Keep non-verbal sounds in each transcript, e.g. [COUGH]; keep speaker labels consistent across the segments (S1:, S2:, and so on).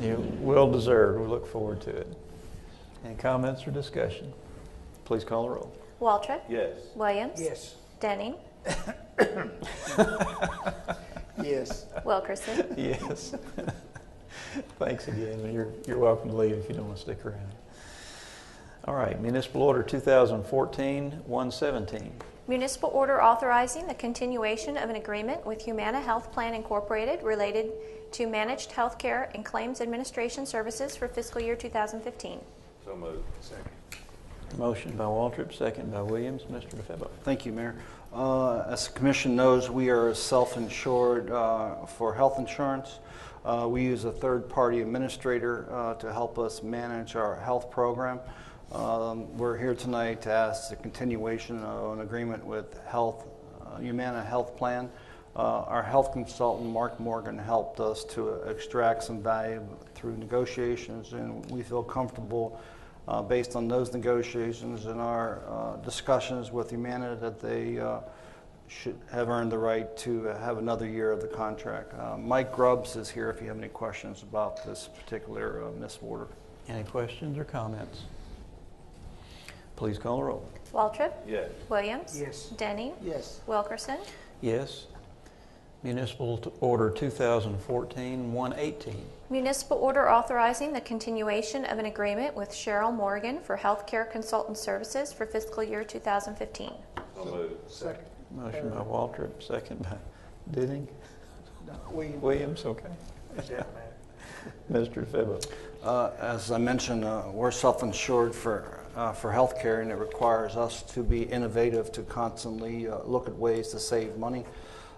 S1: You well deserved. We look forward to it. Any comments or discussion? Please call the roll.
S2: Waltrip?
S1: Yes.
S2: Williams?
S3: Yes.
S2: Denning?
S3: Yes.
S2: Wilkerson?
S1: Yes. [LAUGHS] Thanks again. You're, you're welcome to leave if you don't want to stick around. All right, Municipal Order 2014-117.
S2: Municipal order authorizing the continuation of an agreement with Humana Health Plan Incorporated related to managed healthcare and claims administration services for fiscal year 2015.
S4: So moved. Second.
S1: Motion by Waltrip, second by Williams. Mr. DeFebo.
S5: Thank you, Mayor. Uh, As the commission knows, we are self-insured uh, for health insurance. Uh, We use a third-party administrator uh, to help us manage our health program. Um, We're here tonight to ask the continuation of an agreement with Health, uh, Humana Health Plan. Uh, Our health consultant, Mark Morgan, helped us to extract some value through negotiations, and we feel comfortable uh, based on those negotiations and our uh, discussions with Humana that they uh, should have earned the right to have another year of the contract. Uh, Mike Grubbs is here if you have any questions about this particular uh, municipal order.
S1: Any questions or comments? Please call the roll.
S2: Waltrip?
S4: Yes.
S2: Williams?
S3: Yes.
S2: Denning?
S3: Yes.
S2: Wilkerson?
S1: Yes. Municipal t- Order 2014-118.
S2: Municipal order authorizing the continuation of an agreement with Cheryl Morgan for healthcare consultant services for fiscal year 2015.
S4: So moved.
S3: Second.
S1: Motion by Waltrip, second by Denning.
S3: William.
S1: Williams, okay.
S3: Does that matter?
S1: Mr. DeFebo.
S5: Uh, As I mentioned, uh, we're self-insured for, uh, for healthcare, and it requires us to be innovative to constantly uh, look at ways to save money.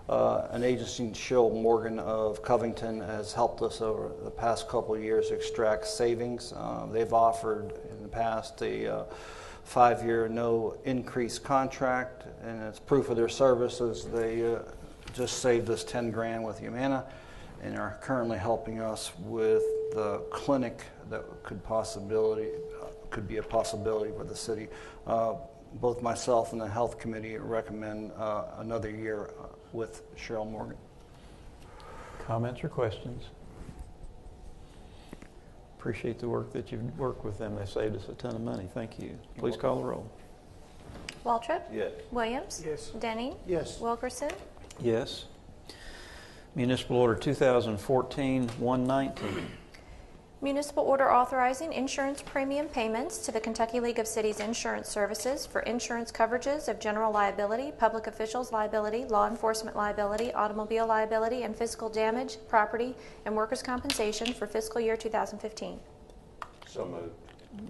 S5: Uh, An agency, Schill Morgan of Covington, has helped us over the past couple of years extract savings. Uh, They've offered in the past a uh, five-year no increase contract, and it's proof of their services. They uh, just saved us 10 grand with Humana and are currently helping us with the clinic that could possibility, uh, could be a possibility for the city. Uh, Both myself and the Health Committee recommend uh, another year uh, with Cheryl Morgan.
S1: Comments or questions? Appreciate the work that you've worked with them. They saved us a ton of money. Thank you. Please call the roll.
S2: Waltrip?
S4: Yes.
S2: Williams?
S3: Yes.
S2: Denning?
S3: Yes.
S2: Wilkerson?
S1: Yes. Municipal Order 2014-119.
S2: Municipal order authorizing insurance premium payments to the Kentucky League of Cities Insurance Services for insurance coverages of general liability, public officials liability, law enforcement liability, automobile liability, and physical damage, property, and workers' compensation for fiscal year 2015.
S4: So moved.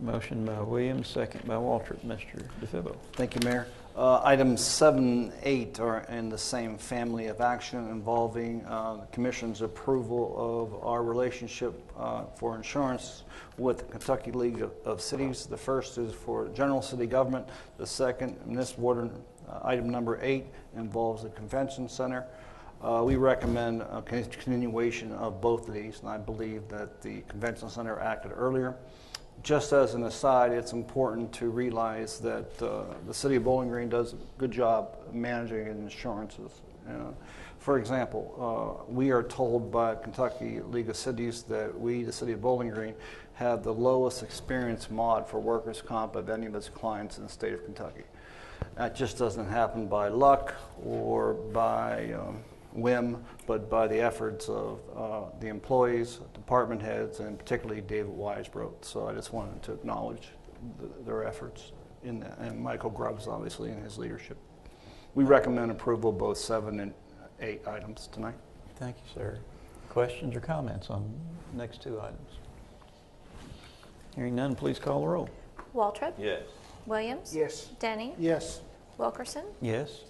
S1: Motion by Williams, second by Waltrip. Mr. DeFebo.
S5: Thank you, Mayor. Uh, Items seven, eight are in the same family of action involving uh, the Commission's approval of our relationship uh, for insurance with the Kentucky League of- of Cities. The first is for general city government. The second, municipal order, uh, item number eight, involves the convention center. Uh, We recommend a continuation of both of these, and I believe that the convention center acted earlier. Just as an aside, it's important to realize that uh, the city of Bowling Green does a good job managing insurances. Uh, For example, uh, we are told by Kentucky League of Cities that we, the city of Bowling Green, have the lowest experience mod for workers' comp of any of its clients in the state of Kentucky. That just doesn't happen by luck or by um, whim, but by the efforts of uh, the employees, department heads, and particularly David Weisbrot. So I just wanted to acknowledge th- their efforts in that, and Michael Grubbs, obviously, in his leadership. We recommend approval of both seven and eight items tonight.
S1: Thank you, sir. Questions or comments on next two items? Hearing none, please call the roll.
S2: Waltrip?
S4: Yes.
S2: Williams?
S3: Yes.
S2: Denning?
S3: Yes.
S2: Wilkerson?
S1: Yes.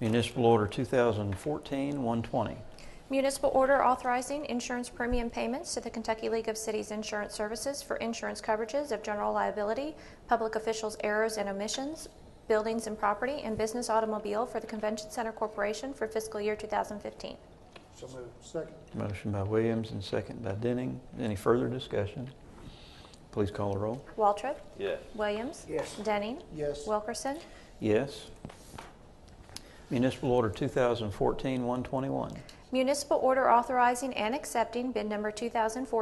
S1: Municipal Order 2014-120.
S2: Municipal order authorizing insurance premium payments to the Kentucky League of Cities Insurance Services for insurance coverages of general liability, public officials' errors and omissions, buildings and property, and business automobile for the Convention Center Corporation for fiscal year 2015.
S3: So moved. Second.
S1: Motion by Williams and second by Denning. Any further discussion? Please call the roll.
S2: Waltrip?
S4: Yes.
S2: Williams?
S3: Yes.
S2: Denning?
S3: Yes.
S2: Wilkerson?
S1: Yes. Municipal Order 2014-121.
S2: Municipal order authorizing and accepting bid number 2014